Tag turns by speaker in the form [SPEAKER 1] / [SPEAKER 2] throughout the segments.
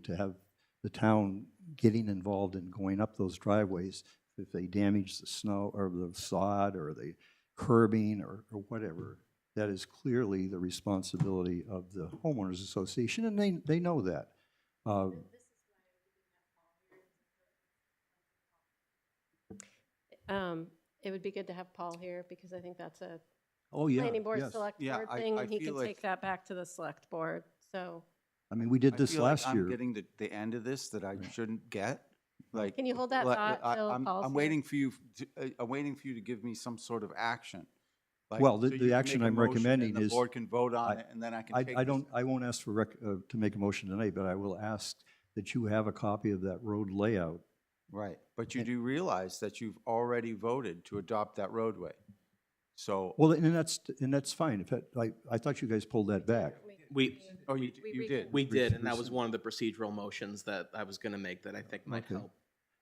[SPEAKER 1] to have the town getting involved in going up those driveways if they damage the snow or the sod or the curbing or, or whatever. That is clearly the responsibility of the homeowners association, and they, they know that. Uh,
[SPEAKER 2] Um, It would be good to have Paul here because I think that's a
[SPEAKER 1] Oh, yeah,
[SPEAKER 2] planning board,
[SPEAKER 1] yes.
[SPEAKER 2] select
[SPEAKER 3] Yeah,
[SPEAKER 2] board
[SPEAKER 3] I-
[SPEAKER 2] thing.
[SPEAKER 3] I
[SPEAKER 2] and He
[SPEAKER 3] feel
[SPEAKER 2] could
[SPEAKER 3] like-
[SPEAKER 2] take that back to the select board, so.
[SPEAKER 1] I mean, we did
[SPEAKER 3] I
[SPEAKER 1] this
[SPEAKER 3] feel like
[SPEAKER 1] last
[SPEAKER 3] I'm
[SPEAKER 1] year.
[SPEAKER 3] getting the, the end of this that I shouldn't get, like.
[SPEAKER 2] Can you hold that
[SPEAKER 3] like,
[SPEAKER 2] thought
[SPEAKER 3] I-
[SPEAKER 2] till
[SPEAKER 3] I'm-
[SPEAKER 2] Paul's
[SPEAKER 3] I'm
[SPEAKER 2] here?
[SPEAKER 3] waiting for you, to- uh, I'm waiting for you to give me some sort of action. Like,
[SPEAKER 1] Well, the-
[SPEAKER 3] so you
[SPEAKER 1] the
[SPEAKER 3] can
[SPEAKER 1] action
[SPEAKER 3] make a
[SPEAKER 1] I'm
[SPEAKER 3] motion
[SPEAKER 1] recommending
[SPEAKER 3] And
[SPEAKER 1] is-
[SPEAKER 3] the board can vote on
[SPEAKER 1] I-
[SPEAKER 3] it, and then I can
[SPEAKER 1] I,
[SPEAKER 3] take.
[SPEAKER 1] I
[SPEAKER 3] this-
[SPEAKER 1] don't, I won't ask for rec, uh, to make a motion tonight, but I will ask that you have a copy of that road layout.
[SPEAKER 3] Right, but you do realize that you've already voted to adopt that roadway. So,
[SPEAKER 1] Well, and that's, and that's fine. If, that- I, I thought you guys pulled that back.
[SPEAKER 4] We,
[SPEAKER 3] oh, you,
[SPEAKER 2] we
[SPEAKER 3] you did.
[SPEAKER 4] we
[SPEAKER 1] Proce-
[SPEAKER 4] did, and that was
[SPEAKER 1] proceed.
[SPEAKER 4] one of the procedural motions that I was gonna make that I think might
[SPEAKER 1] Okay.
[SPEAKER 4] help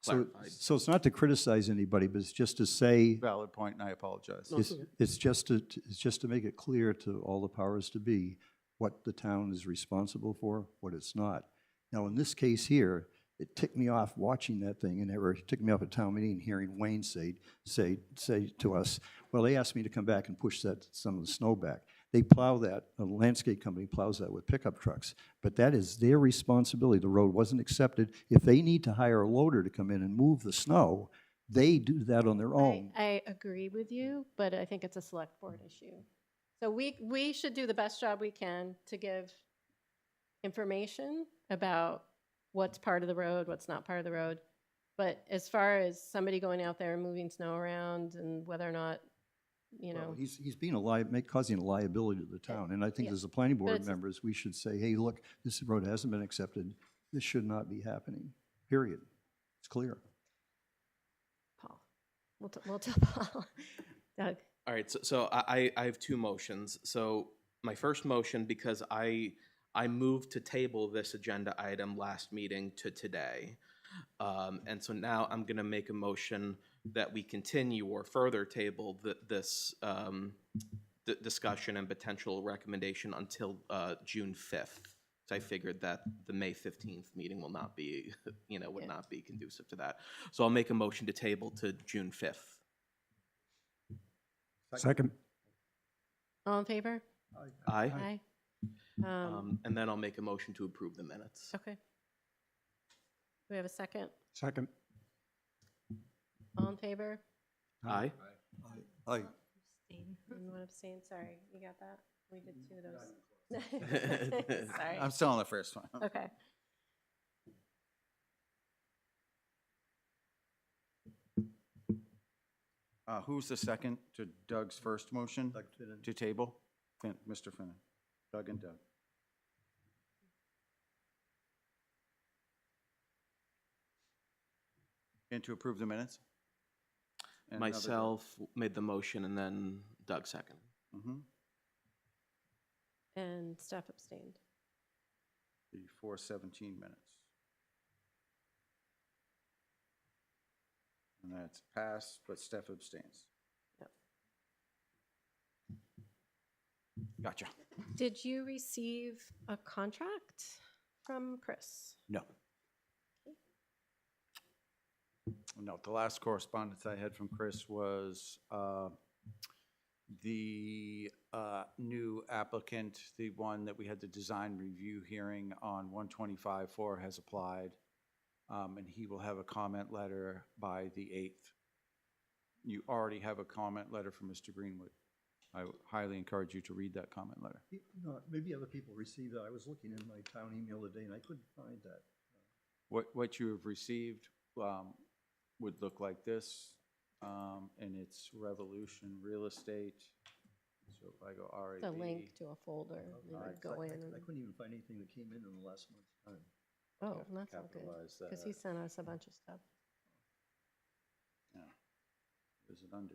[SPEAKER 1] So,
[SPEAKER 4] clarify.
[SPEAKER 1] so it's not to criticize anybody, but it's just to say,
[SPEAKER 3] Valid point, and I apologize.
[SPEAKER 4] No,
[SPEAKER 1] it's, it's just to, it's just to make it clear to all the powers to be what the town is responsible for, what it's not. Now, in this case here, it ticked me off watching that thing and it were- it ticked me off at town meeting, hearing Wayne say, say, say to us, well, they asked me to come back and push that, some of the snow back. They plow that, a landscape company plows that with pickup trucks, but that is their responsibility. The road wasn't accepted. If they need to hire a loader to come in and move the snow, they do that on their
[SPEAKER 2] I,
[SPEAKER 1] own.
[SPEAKER 2] I agree with you, but I think it's a select board issue. So we, we should do the best job we can to give information about what's part of the road, what's not part of the road. But as far as somebody going out there and moving snow around and whether or not, you
[SPEAKER 1] Well,
[SPEAKER 2] know,
[SPEAKER 1] He's, he's being a lia, make, causing a liability to the town, and I think
[SPEAKER 2] yeah.
[SPEAKER 1] as the planning board
[SPEAKER 2] it's a-
[SPEAKER 1] members, we should say, hey, look, this road hasn't been accepted, this should not be happening, period. It's clear.
[SPEAKER 2] Paul, we'll, t- we'll tell Paul. Doug,
[SPEAKER 4] All right, so, so I, I I have two motions. So my first motion, because I, I moved to table this agenda item last meeting to today. Um, and so now I'm gonna make a motion that we continue or further table th- this, um, d- discussion and potential recommendation until, uh, June fifth. So I figured that the May fifteenth meeting will not be, you know, would
[SPEAKER 2] Yeah.
[SPEAKER 4] not be conducive to that. So I'll make a motion to table to June fifth.
[SPEAKER 1] Second.
[SPEAKER 2] all in favor?
[SPEAKER 4] Aye?
[SPEAKER 2] Aye. Um,
[SPEAKER 4] Um, and then I'll make a motion to approve the minutes.
[SPEAKER 2] Okay. Do we have a second?
[SPEAKER 1] Second.
[SPEAKER 2] All in favor?
[SPEAKER 4] Aye?
[SPEAKER 1] Aye.
[SPEAKER 2] And one abstain, sorry, you got that? We did two of those.
[SPEAKER 3] I'm
[SPEAKER 2] Sorry,
[SPEAKER 3] still on the first one.
[SPEAKER 2] okay.
[SPEAKER 3] Uh, who's the second to Doug's first motion? To table? Fin, Mr. Finnan. Doug and Doug. And to approve the minutes? And another Doug.
[SPEAKER 4] Myself made the motion and then Doug second.
[SPEAKER 3] Mhm.
[SPEAKER 2] And staff abstained.
[SPEAKER 3] The four seventeen minutes. And that's passed, but Steph abstains.
[SPEAKER 4] Gotcha.
[SPEAKER 2] Did you receive a contract from Chris?
[SPEAKER 3] No. No, the last correspondence I had from Chris was uh, the uh, new applicant, the one that we had the design review hearing on 125-4 has applied, um, and he will have a comment letter by the 8th. You already have a comment letter from Mr. Greenwood. I highly encourage you to read that comment letter.
[SPEAKER 1] Maybe other people received that. I was looking in my town email today and I couldn't find that.
[SPEAKER 3] What, what you have received um, would look like this, um, and it's Revolution Real Estate. So if I go RAB.
[SPEAKER 2] The link to a folder, you
[SPEAKER 3] I-
[SPEAKER 2] would go in and,
[SPEAKER 1] Oh, I couldn't even find anything that came in in the last month's time.
[SPEAKER 2] oh,
[SPEAKER 3] cap-
[SPEAKER 2] that's all good.
[SPEAKER 3] capitalize
[SPEAKER 2] Because he
[SPEAKER 3] that.
[SPEAKER 2] sent us a bunch of stuff.
[SPEAKER 3] Is it under?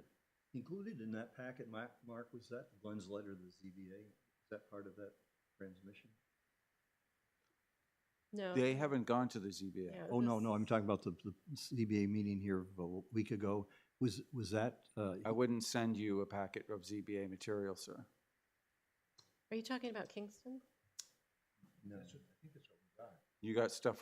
[SPEAKER 1] Included in that packet, Mark, Mark, was that Glenn's letter to the ZBA? Is that part of that transmission?
[SPEAKER 2] No.
[SPEAKER 3] They haven't gone to the ZBA.
[SPEAKER 2] Yeah,
[SPEAKER 1] Oh, no, no, I'm
[SPEAKER 2] this-
[SPEAKER 1] talking about the, the ZBA meeting here of a week ago. Was, was that, uh,
[SPEAKER 3] I wouldn't send you a packet of ZBA material, sir.
[SPEAKER 2] Are you talking about Kingston?
[SPEAKER 1] no.
[SPEAKER 3] You got stuff